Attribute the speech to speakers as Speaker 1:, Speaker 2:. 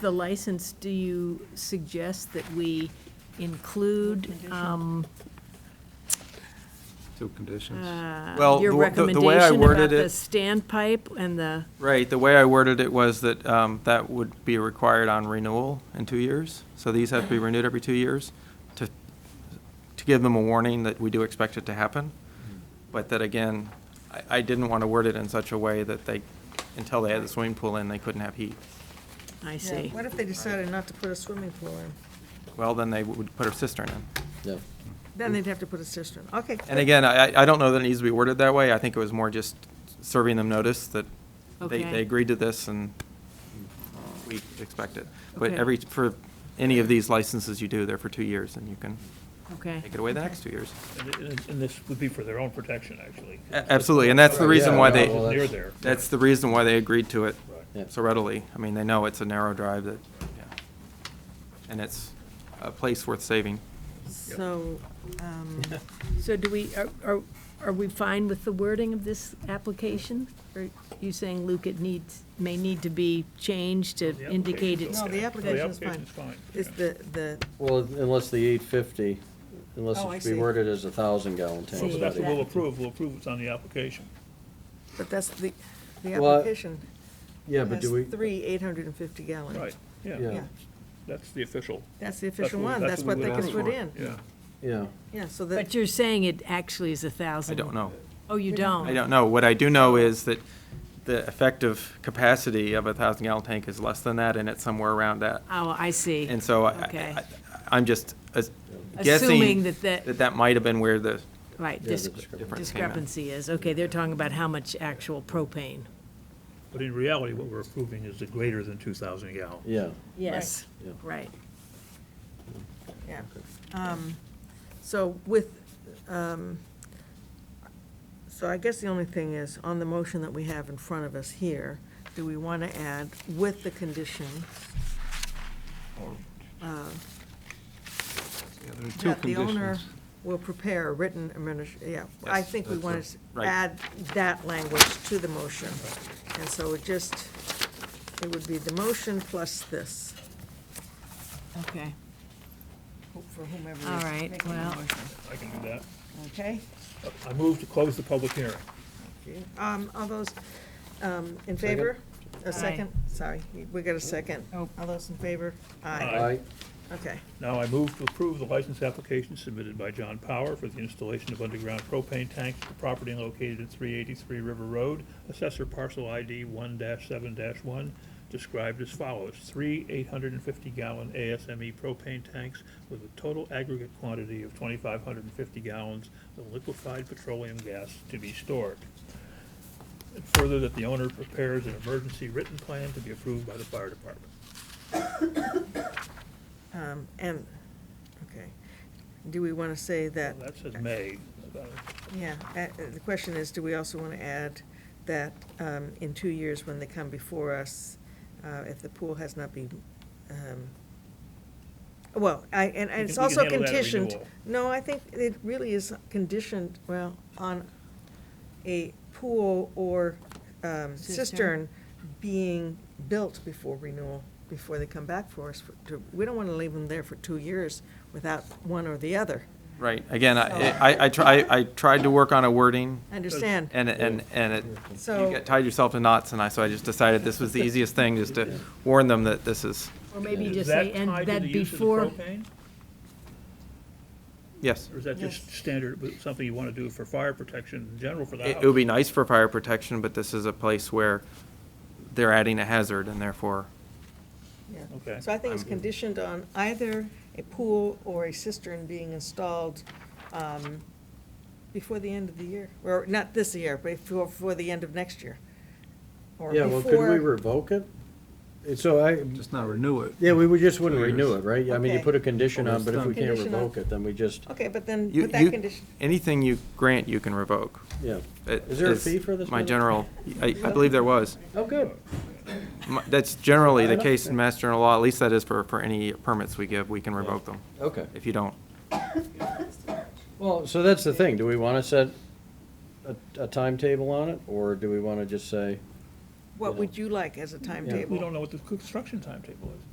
Speaker 1: the license, do you suggest that we include um,
Speaker 2: Two conditions.
Speaker 1: uh,
Speaker 2: Well,
Speaker 1: your
Speaker 2: the w- the- the way I
Speaker 1: recommendation about
Speaker 2: worded
Speaker 1: the
Speaker 2: it-
Speaker 1: standpipe and the,
Speaker 2: Right, the way I worded it was that um, that would be required on renewal in two years. So these have to be renewed every two years to, to give them a warning that we do expect it to happen. But that again, I, I didn't want to word it in such a way that they, until they had the swimming pool in, they couldn't have heat.
Speaker 1: I
Speaker 3: Yeah,
Speaker 1: see.
Speaker 3: What if they decided not to put a swimming pool in?
Speaker 2: Well, then they would put a cistern in.
Speaker 4: Yeah.
Speaker 3: Then they'd have to put a cistern. Okay.
Speaker 2: And again, I, I- I don't know that it needs to be worded that way. I think it was more just serving them notice that they,
Speaker 1: Okay.
Speaker 2: they agreed to this and uh, we expect it. But
Speaker 1: Okay.
Speaker 2: every, for any of these licenses you do, they're for two years and you can
Speaker 1: Okay.
Speaker 2: take it away the next two years.
Speaker 5: And- And and this would be for their own protection, actually.
Speaker 2: A- Absolutely, and that's the reason why
Speaker 4: Yeah, well,
Speaker 2: they,
Speaker 4: that-
Speaker 5: Near there.
Speaker 2: that's the reason why they agreed to it
Speaker 5: Right.
Speaker 4: Yeah.
Speaker 2: so readily. I mean, they know it's a narrow drive that, yeah. And it's a place worth saving.
Speaker 3: So, um,
Speaker 1: So do we, are- are, are we fine with the wording of this application? Or are you saying, Luke, it needs, may need to be changed to
Speaker 5: The
Speaker 1: indicate
Speaker 5: application's
Speaker 1: it's,
Speaker 3: No,
Speaker 5: okay.
Speaker 3: the application is fine.
Speaker 5: application's fine.
Speaker 3: it's
Speaker 5: yeah.
Speaker 3: the, the,
Speaker 4: Well, unless the eight fifty, unless
Speaker 3: Oh, I
Speaker 4: it should
Speaker 3: see.
Speaker 4: be worded as a thousand gallon
Speaker 5: Well,
Speaker 4: tank.
Speaker 5: but
Speaker 1: See,
Speaker 4: not
Speaker 5: that's what we'll
Speaker 4: 850.
Speaker 5: approve, we'll approve it's on the application.
Speaker 3: but that's the, the
Speaker 4: Well, uh,
Speaker 3: application
Speaker 4: Yeah, but
Speaker 3: has
Speaker 4: do we,
Speaker 3: three eight hundred and fifty gallon.
Speaker 5: Right, yeah,
Speaker 4: yeah,
Speaker 3: Yeah,
Speaker 5: that's the official.
Speaker 3: that's the
Speaker 5: that's
Speaker 3: official
Speaker 5: we-
Speaker 3: one. That's what
Speaker 5: we
Speaker 3: they
Speaker 5: would
Speaker 3: can
Speaker 2: ask
Speaker 3: put
Speaker 2: for.
Speaker 3: in.
Speaker 5: Yeah,
Speaker 4: yeah.
Speaker 3: Yeah, so
Speaker 1: but
Speaker 3: that,
Speaker 1: you're saying it actually is a
Speaker 2: I
Speaker 1: thousand?
Speaker 2: don't know.
Speaker 1: Oh, you
Speaker 3: We don't
Speaker 1: don't?
Speaker 2: I don't know. What I do know is that the effective capacity of a thousand gallon tank is less than that, and it's somewhere around that.
Speaker 1: Oh, I see.
Speaker 2: And so I-
Speaker 1: Okay.
Speaker 2: I, I'm just as-
Speaker 1: Assuming
Speaker 2: guessing
Speaker 1: that that-
Speaker 2: that that might have been where the
Speaker 1: Right,
Speaker 4: Yeah,
Speaker 1: dis-
Speaker 4: the discrepancy.
Speaker 2: difference came in.
Speaker 1: discrepancy is, okay, they're talking about how much actual propane.
Speaker 5: but in reality, what we're approving is the greater than 2,000 gallon.
Speaker 4: Yeah,
Speaker 1: Yes,
Speaker 4: yeah.
Speaker 1: right.
Speaker 3: yeah. Um, So with, um, so I guess the only thing is, on the motion that we have in front of us here, do we want to add with the condition? uh,
Speaker 6: Yeah, there are two
Speaker 3: that the owner
Speaker 6: conditions.
Speaker 3: will prepare a written adminis, yeah. I
Speaker 2: Yes,
Speaker 3: think we
Speaker 2: that's
Speaker 3: want
Speaker 2: it.
Speaker 3: to
Speaker 2: Right.
Speaker 3: add that language to the motion. And so it just, it would be the motion plus this,
Speaker 1: Okay,
Speaker 3: who- for whomever is
Speaker 1: all right,
Speaker 3: making the
Speaker 1: well,
Speaker 3: motion.
Speaker 5: I can do that.
Speaker 3: Okay?
Speaker 5: I move to close the public hearing.
Speaker 3: Um, all those, um, in favor? A
Speaker 1: Aye.
Speaker 3: second? Sorry, we got a second.
Speaker 1: Oh.
Speaker 3: All those in favor?
Speaker 5: Aye.
Speaker 3: Aye.
Speaker 4: I,
Speaker 3: Okay.
Speaker 5: Now I move to approve the license application submitted by John Power for the installation of underground propane tanks for property located at 383 River Road, assessor parcel ID 1-7-1, described as follows. Three 850-gallon ASME E propane tanks with a total aggregate quantity of 2,550 gallons of liquefied petroleum gas to be stored. And Further, that the owner prepares an emergency written plan to be approved by the fire department.
Speaker 3: Um, and, okay. Do we want to say that?
Speaker 5: That says may.
Speaker 3: Yeah, uh, uh, the question is, do we also want to add that um, in two years, when they come before us, uh, if the pool has not been, um, well, I, and and
Speaker 5: We
Speaker 3: it's
Speaker 5: can- we can
Speaker 3: also
Speaker 5: handle that at
Speaker 3: conditioned.
Speaker 5: renewal.
Speaker 3: No, I think it really is conditioned, well, on a pool or um, cistern
Speaker 1: Cistern.
Speaker 3: being built before renewal, before they come back for us. for- to- We don't want to leave them there for two years without one or the other.
Speaker 2: Right, again, I, I, I try, I tried to work on a wording,
Speaker 3: I Understand?
Speaker 2: and, and, and it, you
Speaker 3: So-
Speaker 2: get tied yourself to knots, and I, so I just decided this was the easiest thing, just to warn them that this is,
Speaker 1: Or maybe
Speaker 5: Is
Speaker 1: just
Speaker 5: that
Speaker 1: say, and
Speaker 5: tied to the
Speaker 1: that
Speaker 5: use of the
Speaker 1: before,
Speaker 5: propane?
Speaker 2: yes.
Speaker 5: Or is that just standard, with something you want to do for fire protection in general for the
Speaker 2: It
Speaker 5: house?
Speaker 2: it would be nice for fire protection, but this is a place where they're adding a hazard, and therefore,
Speaker 3: Yeah.
Speaker 5: Okay.
Speaker 3: So I think it's conditioned on either a pool or a cistern being installed um, before the end of the year, or not this year, but before, before the end of next year. Or
Speaker 4: yeah, well, could we
Speaker 3: before-
Speaker 4: revoke it? And So I,
Speaker 6: Just not renew it.
Speaker 4: yeah, we would just wouldn't renew it, right? I mean, you
Speaker 3: Okay.
Speaker 4: put a condition on, but if we can't
Speaker 3: Condition on-
Speaker 4: revoke it, then we just,
Speaker 3: Okay, but then
Speaker 2: you,
Speaker 3: with that
Speaker 2: you-
Speaker 3: condition,
Speaker 2: anything you grant, you can revoke.
Speaker 4: yeah.
Speaker 2: It
Speaker 4: Is there a fee for this?
Speaker 2: My
Speaker 4: Mike?
Speaker 2: general, I, I believe there was.
Speaker 4: Oh, good.
Speaker 2: My- That's generally the
Speaker 4: I don't-
Speaker 2: case in Mass General Law, at least that is for, for any permits we give, we can revoke them.
Speaker 4: Okay.
Speaker 2: If you don't,
Speaker 4: Well, so that's the thing. Do we want to set a, a timetable on it, or do we want to just say?
Speaker 3: what would you like as a
Speaker 5: We
Speaker 3: timetable?
Speaker 5: don't know what the construction timetable is.